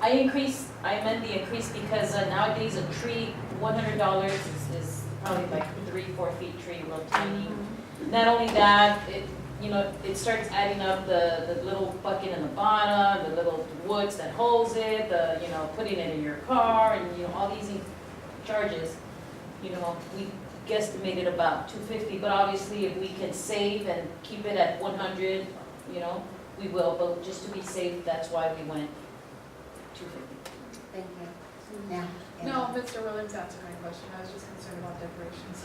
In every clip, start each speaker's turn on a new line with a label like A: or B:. A: I increase, I amend the increase because uh, nowadays a tree, one hundred dollars is, is probably like three, four feet tree, real tiny. Not only that, it, you know, it starts adding up the, the little bucket in the bottom, the little woods that holds it, the, you know, putting it in your car and, you know, all these charges. You know, we guesstimated about two fifty, but obviously if we can save and keep it at one hundred, you know, we will, but just to be safe, that's why we went two fifty.
B: Thank you. Now. Anna.
C: No, Mr. Williams answered my question, I was just concerned about decorations.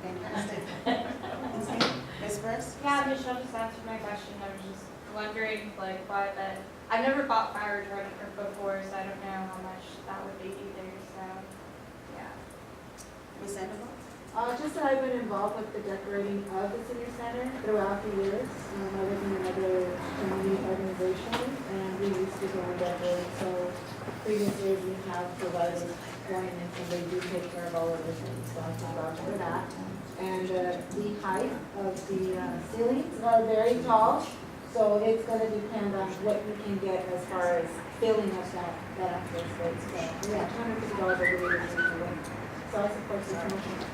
B: Fantastic. Ms. Burks?
D: Yeah, Michelle just answered my question, I was just wondering like why that, I've never bought fire retardant or before, so I don't know how much that would be either, so, yeah.
B: Ms. Sandoval?
E: Uh, just that I've been involved with the decorating of the senior center throughout the years. Um, I was in another community organization and we used to go and decorate, so previous years we have provided going and so they do take care of all of the things, so I'm vouch for that. And, uh, the height of the uh, ceilings are very tall, so it's gonna depend on what you can get as far as filling up that, that actual space. So, yeah, two hundred fifty dollars over the years. So I support the commission.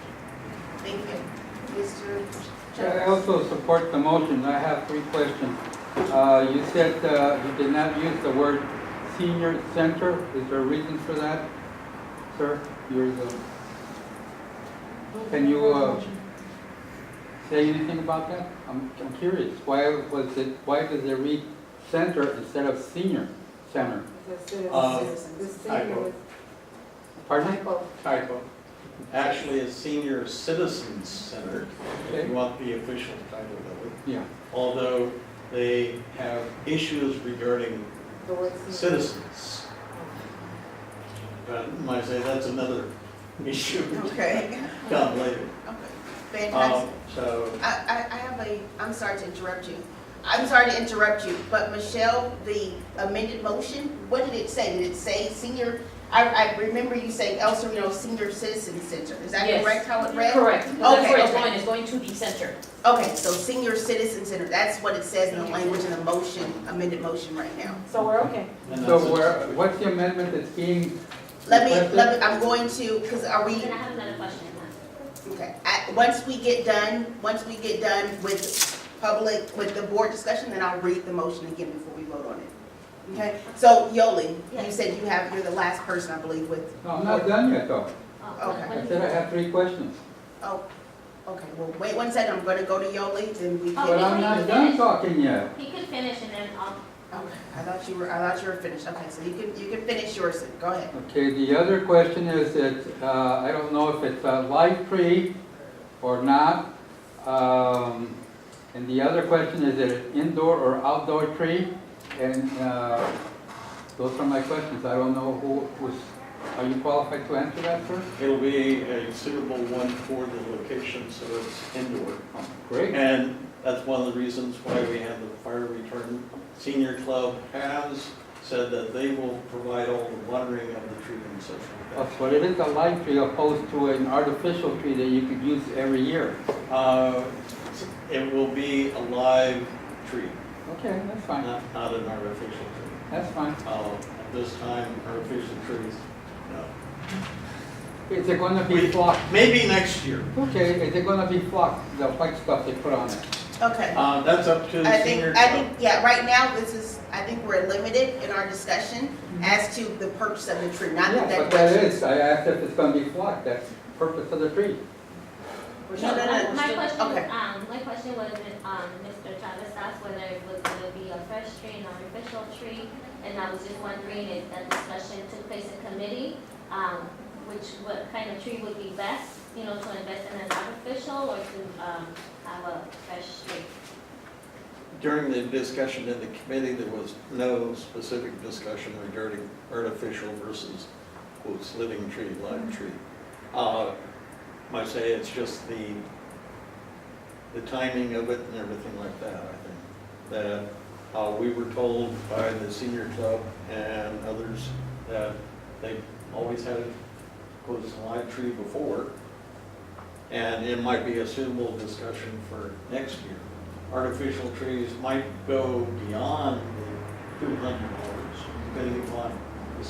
B: Thank you. Mr.
F: I
B: Chadwick?
F: also support the motion. I have three questions. Uh, You said uh, you did not use the word senior center. Is there a reason for that, sir? You're the, can you uh, say anything about that? I'm I'm curious. Why was it, why does it read center instead of senior center?
G: Uh,
E: The
G: typo.
E: senior
F: Pardon? me?
E: typo.
G: Typo. Actually, it's Senior Citizens Center, if you want the official title of it.
F: Yeah.
G: Although they have issues regarding
E: The word senior.
G: citizens. But might say that's another issue.
B: Okay,
G: Come later.
B: okay.
G: Um,
B: Fantastic.
G: So,
B: I, I, I have a, I'm sorry to interrupt you. I'm sorry to interrupt you, but Michelle, the amended motion, what did it say? Did it say senior, I, I remember you saying El Sereno Senior Citizen Center. Is that
A: Yes.
B: correct how it read?
A: Correct, that's
B: Okay,
A: where it's
B: okay.
A: going, it's going to the center.
B: Okay, so senior citizen center, that's what it says in the language in the motion, amended motion right now.
E: So we're okay.
G: and that's
F: So
G: it.
F: where, what's the amendment that's being,
B: Let me, let me, I'm going to, because are we,
H: Then I have another question.
B: okay, I, once we get done, once we get done with public, with the board discussion, then I'll read the motion again before we vote on it. Okay, so Yoli, you said you have, you're the last person, I believe, with,
F: no, I'm not done yet though.
H: Oh,
B: Okay.
H: what
F: I
H: is
F: said I
H: it?
F: have three questions.
B: oh, okay, well, wait one second, I'm gonna go to Yoli, then we
H: Oh,
F: But
B: can.
F: I'm not done talking yet.
H: He could finish and then I'll
B: Okay, I thought you were, I thought you were finished, okay, so you can, you can finish yours, then. go ahead.
F: Okay, the other question is that, uh, I don't know if it's a live tree or not. Um, and the other question is that it indoor or outdoor tree? And, uh, those are my questions. I don't know who was, are you qualified to answer that, sir?
G: It'll be a suitable one for the location, so it's indoor.
F: Oh, Great.
G: And that's one of the reasons why we have the fire retardant. Senior Club has said that they will provide all the watering of the tree and such like
F: That's what it is, a live tree opposed to an artificial tree that you could use every year.
G: that. Uh, It will be a live tree,
F: Okay, that's fine.
G: not, not an artificial tree.
F: That's fine.
G: Uh, At this time, artificial trees, no.
F: Is it gonna be flocked?
G: Maybe next year.
F: Okay, is it gonna be flocked, the white stuff they put on it?
B: Okay.
G: Uh, That's up to
B: I
G: the
B: think,
G: Senior
B: I
G: Club.
B: think, yeah, right now, this is, I think we're limited in our discussion as to the purpose of the tree, not the
F: Yeah, but that
B: decoration.
F: is, I asked if it's gonna be flocked, that's the purpose of the tree.
A: We're
B: No, no,
A: still-
B: no,
A: we're
H: My
A: still-
H: question,
B: okay.
H: um, my question was, um, Mr. Chavez asked whether it was gonna be a fresh tree, an artificial tree, and I was just wondering if that discussion took place in committee, um, which, what kind of tree would be best, you know, to invest in an artificial or to, um, have a fresh tree?
G: During the discussion in the committee, there was no specific discussion regarding artificial versus, quotes, living tree, live tree. Uh, Might say it's just the, the timing of it and everything like that, I think. That uh, we were told by the senior club and others that they always had, quotes, a live tree before. And it might be a suitable discussion for next year artificial trees might go beyond the two hundred dollars, depending upon